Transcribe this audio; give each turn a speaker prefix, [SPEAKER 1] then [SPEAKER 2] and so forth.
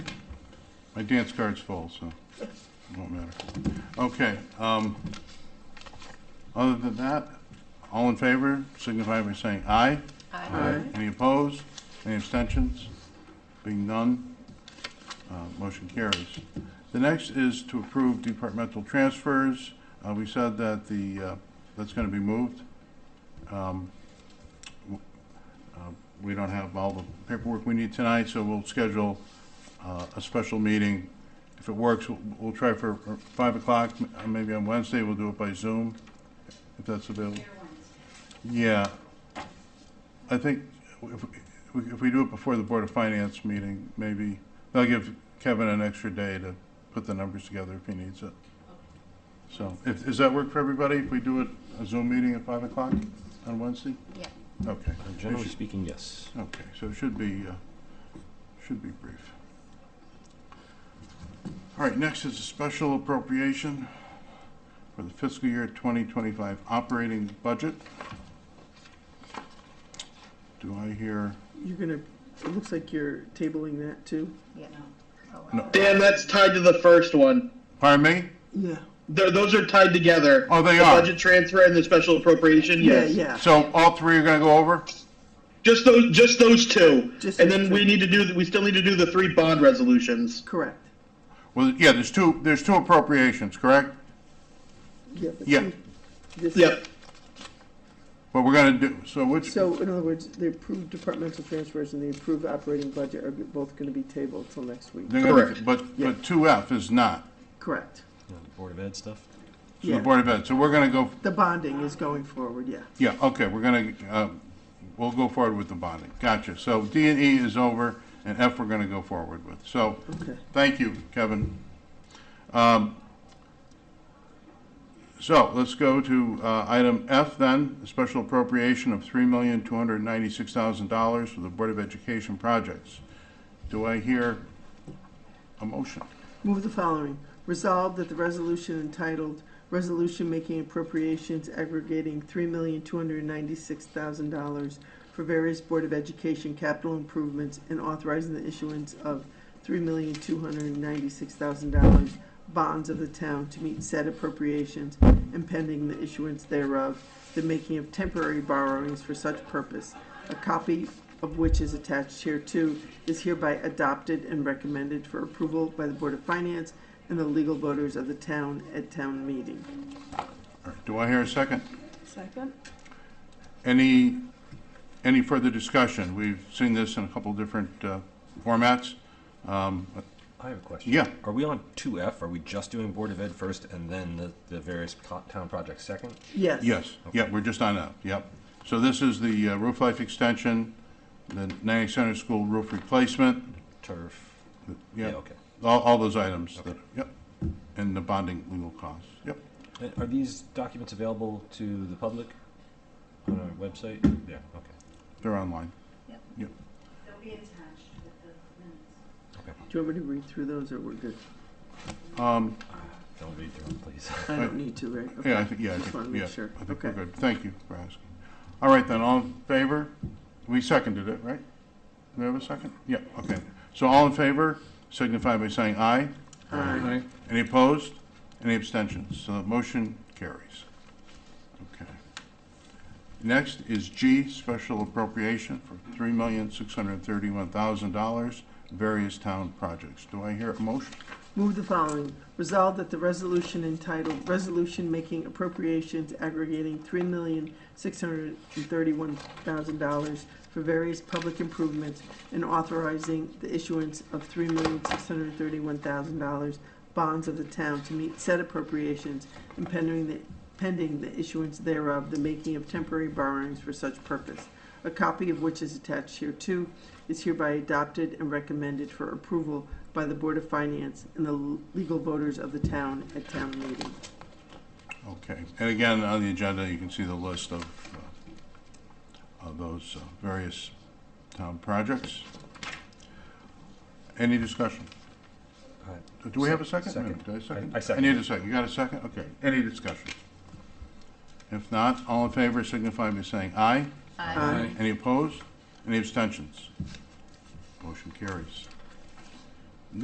[SPEAKER 1] My dance card's full, so it won't matter. Okay, um, other than that, all in favor, signify by saying aye.
[SPEAKER 2] Aye.
[SPEAKER 1] Any opposed? Any abstentions? Being none, uh, motion carries. The next is to approve departmental transfers. Uh, We said that the, uh, that's going to be moved. Um, w- uh, We don't have all the paperwork we need tonight, so we'll schedule uh, a special meeting. If it works, we'll- we'll try for for 5 o'clock, m- uh, maybe on Wednesday, we'll do it by Zoom, if that's available. Yeah, I think if, we- if we do it before the Board of Finance meeting, maybe, that'll give Kevin an extra day to put the numbers together if he needs it. So, if, does that work for everybody, if we do it, a Zoom meeting at five o'clock on Wednesday?
[SPEAKER 2] Yeah.
[SPEAKER 1] Okay.
[SPEAKER 3] Generally speaking, yes.
[SPEAKER 1] Okay, so it should be, uh, should be brief. All right, next is a special appropriation for the fiscal year 2025 operating budget. Do I hear,
[SPEAKER 4] You're gonna, it looks like you're tabling that too.
[SPEAKER 2] Yeah. Oh,
[SPEAKER 1] No.
[SPEAKER 5] Dan, that's tied to the first one.
[SPEAKER 1] pardon me?
[SPEAKER 4] Yeah.
[SPEAKER 5] Th those are tied together.
[SPEAKER 1] Oh, they
[SPEAKER 5] the
[SPEAKER 1] are.
[SPEAKER 5] Budget transfer and the special appropriation.
[SPEAKER 4] Yeah,
[SPEAKER 5] Yes.
[SPEAKER 4] yeah.
[SPEAKER 1] So all three are going to go over?
[SPEAKER 5] Just those. Just those two.
[SPEAKER 4] Just
[SPEAKER 5] and
[SPEAKER 4] those
[SPEAKER 5] then
[SPEAKER 4] two.
[SPEAKER 5] we need to do. We still need to do the three bond resolutions.
[SPEAKER 4] Correct.
[SPEAKER 1] Well, yeah, there's two, there's two appropriations, correct?
[SPEAKER 4] Yeah. but
[SPEAKER 1] Yeah.
[SPEAKER 4] you- this-
[SPEAKER 5] Yep.
[SPEAKER 1] What we're going to do, so which,
[SPEAKER 4] So in other words, the approved departmental transfers and the approved operating budget are both gonna be tabled till next week.
[SPEAKER 1] they're gonna-
[SPEAKER 5] correct.
[SPEAKER 1] but,
[SPEAKER 4] Yeah.
[SPEAKER 1] but 2F is not,
[SPEAKER 4] Correct.
[SPEAKER 3] You know, the Board of Ed stuff.
[SPEAKER 1] so the
[SPEAKER 4] Yeah.
[SPEAKER 1] Board of Ed. So we're going to go
[SPEAKER 4] The bonding is going forward, yeah.
[SPEAKER 1] Yeah, okay, we're gonna, uh, we'll go forward with the bonding. Gotcha. So D and E is over, and F we're gonna go forward with. So,
[SPEAKER 4] Okay.
[SPEAKER 1] thank you, Kevin. Um, So, let's go to uh, item F then, a special appropriation of $3,296,000 for the Board of Education projects. Do I hear a motion?
[SPEAKER 4] Move the following. Resolved that the resolution entitled Resolution Making Appropriations Aggregating Three Million Two Hundred Ninety-Six Thousand Dollars for Various Board of Education Capital Improvements and Authorizing the Issuance of Three Million Two Hundred Ninety-Six Thousand Dollars Bonds of the Town to Meet Said Appropriations and Pending the Issuance thereof, the Making of Temporary Borrowings for Such Purpose, a copy of which is attached hereto, is hereby adopted and recommended for approval by the Board of Finance and the legal voters of the town at town meeting.
[SPEAKER 1] All right, Do I hear a second?
[SPEAKER 2] Second?
[SPEAKER 1] Any, any further discussion? We've seen this in a couple different uh, formats. Um,
[SPEAKER 3] I have a question.
[SPEAKER 1] Yeah,
[SPEAKER 3] Are we on two F? Are we just doing Board of Ed first and then the, the various co- town projects second?
[SPEAKER 4] Yes.
[SPEAKER 1] yes, yeah, we're just on up, yep. So this is the uh, roof life extension, the Natick Center School roof replacement,
[SPEAKER 3] Turf.
[SPEAKER 1] yeah,
[SPEAKER 3] okay.
[SPEAKER 1] all, all those items, that- yep, and the bonding legal costs, yep.
[SPEAKER 3] And Uh, Are these documents available to the public on our website? Yeah, okay.
[SPEAKER 1] They're online.
[SPEAKER 2] Yep.
[SPEAKER 1] Yep.
[SPEAKER 6] They'll be attached with the minutes.
[SPEAKER 4] Do you want me to read through those, or we're good?
[SPEAKER 1] Um,
[SPEAKER 3] Don't read through them, please.
[SPEAKER 4] I don't need to, right? Okay.
[SPEAKER 1] Yeah, I think, yeah, I
[SPEAKER 4] Just wanna
[SPEAKER 1] think,
[SPEAKER 4] make
[SPEAKER 1] yeah,
[SPEAKER 4] sure.
[SPEAKER 1] I think we're
[SPEAKER 4] Okay.
[SPEAKER 1] good. Thank you for asking. All right then, all in favor? We seconded it, right? Do we have a second? Yeah, okay. So all in favor, signify by saying aye.
[SPEAKER 4] Aye.
[SPEAKER 1] Any opposed? Any abstentions? So the motion carries. Okay. Next is G, special appropriation for three million, six hundred and thirty-one thousand dollars, various town projects. Do I hear a motion?
[SPEAKER 4] Move the following. Resolved that the resolution entitled Resolution Making Appropriations Aggregating Three Million Six Hundred and Thirty-One Thousand Dollars for Various Public Improvements and Authorizing the Issuance of Three Million Six Hundred and Thirty-One Thousand Dollars Bonds of the Town to Meet Said Appropriations and Pending the, pending the issuance thereof, the making of temporary borrowings for such purpose, a copy of which is attached hereto, is hereby adopted and recommended for approval by the Board of Finance and the l- legal voters of the town at town meeting.
[SPEAKER 1] Okay, and again, on the agenda, you can see the list of, uh, of those uh, various town projects. Any discussion?
[SPEAKER 3] All right.
[SPEAKER 1] Do we have a second?
[SPEAKER 3] Uh, Second.
[SPEAKER 1] Wait a minute, Did I second?
[SPEAKER 3] I- I second.
[SPEAKER 1] need a second, you got a second? Okay, any discussion? If not, all in favor signify by saying aye.
[SPEAKER 2] Aye.
[SPEAKER 1] Any opposed? Any abstentions? Motion carries.